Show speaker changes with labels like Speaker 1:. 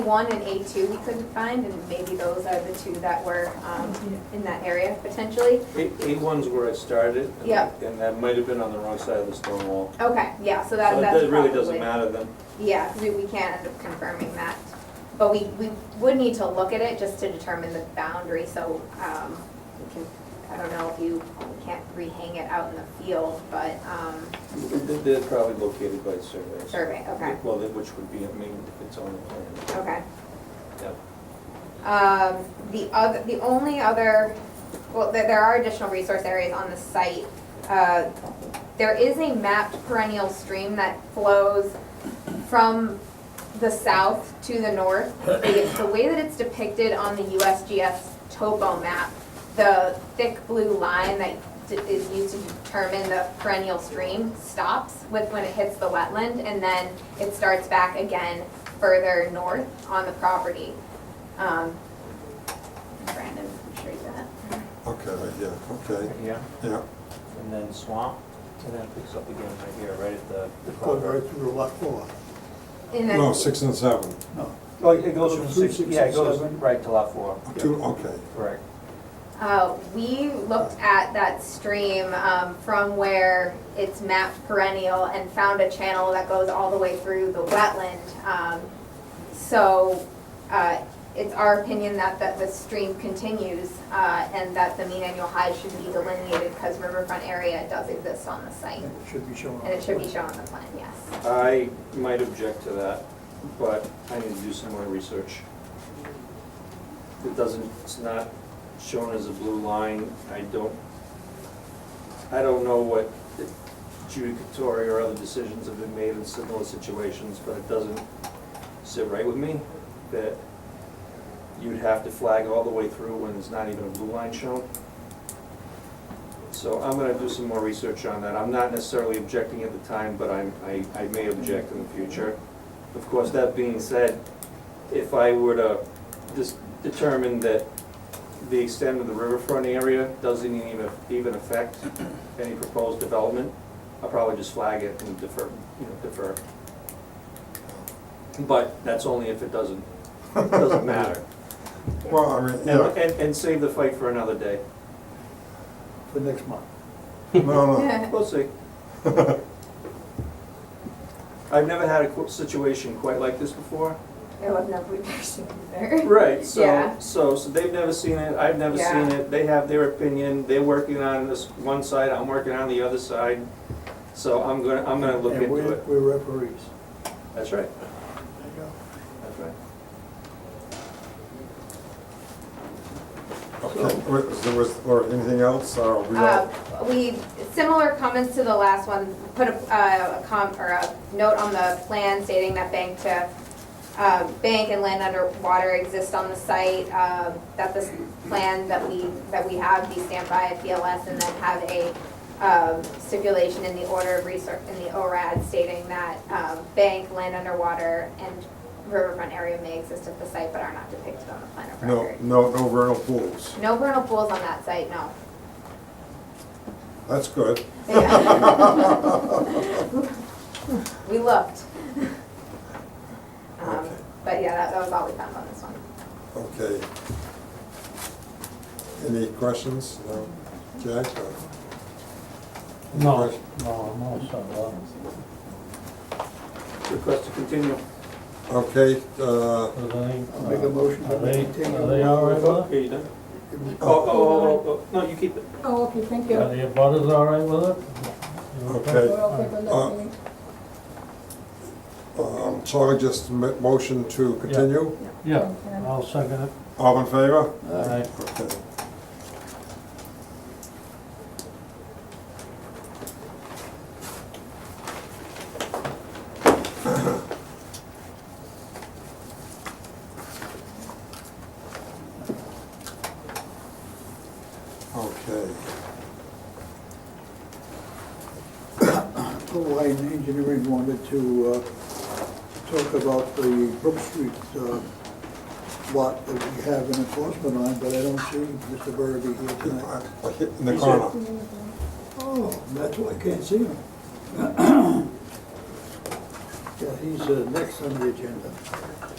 Speaker 1: one and A two we couldn't find, and maybe those are the two that were um, in that area potentially.
Speaker 2: A one's where I started. and-
Speaker 1: Yeah.
Speaker 2: And that might have been on the wrong side of the stone wall.
Speaker 1: Okay, yeah, so that, that's
Speaker 2: So
Speaker 1: probably.
Speaker 2: That really doesn't matter then.
Speaker 1: Yeah, 'cause we, we can't end up confirming that. But we, we would need to look at it just to determine the boundary, so, um, we can, I don't know if you we can't rehang it out in the field, but, um,
Speaker 2: They- They're probably located by surveys.
Speaker 1: survey, okay,
Speaker 2: Well, then which would be, I mean, if it's on the plan.
Speaker 1: okay.
Speaker 2: Yep.
Speaker 1: Um, the other, the only other, well, there, there are additional resource areas on the site. Uh, There is a mapped perennial stream that flows from the south to the north. The, the way that it's depicted on the USGS topo map, the thick blue line that d- is used to determine the perennial stream stops with when it hits the wetland, and then it starts back again further north on the property. Um, Brandon, I'm sure you got it.
Speaker 3: Okay, yeah, okay,
Speaker 2: Yeah,
Speaker 3: yeah.
Speaker 2: and then swamp, and then it picks up again right here, right at the. the
Speaker 4: Going
Speaker 2: culvert.
Speaker 4: right through lot four.
Speaker 1: And then-
Speaker 3: No, six and seven,
Speaker 4: No.
Speaker 2: Oh, it goes from
Speaker 4: Through
Speaker 2: six,
Speaker 4: six
Speaker 2: yeah, it
Speaker 4: and
Speaker 2: goes
Speaker 4: seven.
Speaker 2: right to lot four. Yeah,
Speaker 3: two, okay.
Speaker 2: Correct.
Speaker 1: Uh, we looked at that stream, um, from where it's mapped perennial and found a channel that goes all the way through the wetland. Um, so, uh, it's our opinion that, that the stream continues, uh, and that the mean annual high should be delineated because riverfront area does exist on the site.
Speaker 4: And it should be shown.
Speaker 1: And it should be shown on the plan, yes.
Speaker 2: I might object to that, but I need to do some more research. It doesn't, it's not shown as a blue line, I don't, I don't know what judicatory or other decisions have been made in similar situations, but it doesn't sit right with me that you'd have to flag all the way through when there's not even a blue line shown. So I'm gonna do some more research on that. I'm not necessarily objecting at the time, but I'm, I, I may object in the future. Of course, that being said, if I were to just determine that the extent of the riverfront area doesn't even, even affect any proposed development, I'll probably just flag it and defer, you know, defer. But that's only if it doesn't, doesn't matter.
Speaker 3: Well, I mean,
Speaker 2: And,
Speaker 3: yeah,
Speaker 2: and, and save the fight for another day.
Speaker 4: For next month.
Speaker 3: no,
Speaker 2: We'll see.
Speaker 3: no.
Speaker 2: I've never had a qu- situation quite like this before.
Speaker 1: It would never be mentioned either.
Speaker 2: Right, so,
Speaker 1: Yeah.
Speaker 2: so, so they've never seen it, I've never seen
Speaker 1: Yeah.
Speaker 2: it, they have their opinion, they're working on this one side, I'm working on the other side. So I'm gonna, I'm gonna look
Speaker 4: And
Speaker 2: into
Speaker 4: we're,
Speaker 2: it.
Speaker 4: we're referees.
Speaker 2: That's right,
Speaker 4: There you go.
Speaker 2: that's right.
Speaker 3: Okay, was, there was, or anything else, or we all,
Speaker 1: Uh, We, similar comments to the last one, put a, uh, a com, or a note on the plan stating that bank to, uh, bank and land underwater exist on the site, uh, that this plan that we, that we have be stamped by a PLS and then have a um, stipulation in the order of resource, in the ORAD stating that um, bank, land underwater, and riverfront area may exist at the site but are not depicted on the plan of
Speaker 3: no,
Speaker 1: record.
Speaker 3: no, no vernal pools,
Speaker 1: No vernal pools on that site, no.
Speaker 3: that's good.
Speaker 1: We looked. Um,
Speaker 3: Okay.
Speaker 1: But yeah, that, that was all we found on this one.
Speaker 3: Okay. Any questions? No? Jack? uh? or-
Speaker 5: No, no, no, so,
Speaker 2: Request to continue.
Speaker 3: Okay, uh,
Speaker 5: uh, are they?
Speaker 4: I'll make a motion to
Speaker 5: Are they,
Speaker 4: maintain
Speaker 5: are they all right with
Speaker 2: Okay, you done?
Speaker 4: It
Speaker 2: Oh, oh, oh, oh, oh, no, you keep it.
Speaker 6: Oh, okay, thank
Speaker 5: it? Are
Speaker 6: you.
Speaker 5: the butters all right with it? You
Speaker 3: Okay.
Speaker 6: Well, I'll take a
Speaker 3: Uh,
Speaker 6: look. maybe.
Speaker 3: um, Charlie just ma- motion to continue,
Speaker 5: Yeah, I'll second it.
Speaker 3: all in favor?
Speaker 5: Aye.
Speaker 3: Okay. Okay,
Speaker 4: Blue Line Engineering wanted to uh, talk about the Brook Street uh, lot that we have an enforcement on, but I don't see Mr. Burby here tonight.
Speaker 3: in the corner.
Speaker 4: Oh, that's why I can't see him. Yeah, he's uh, next on the agenda.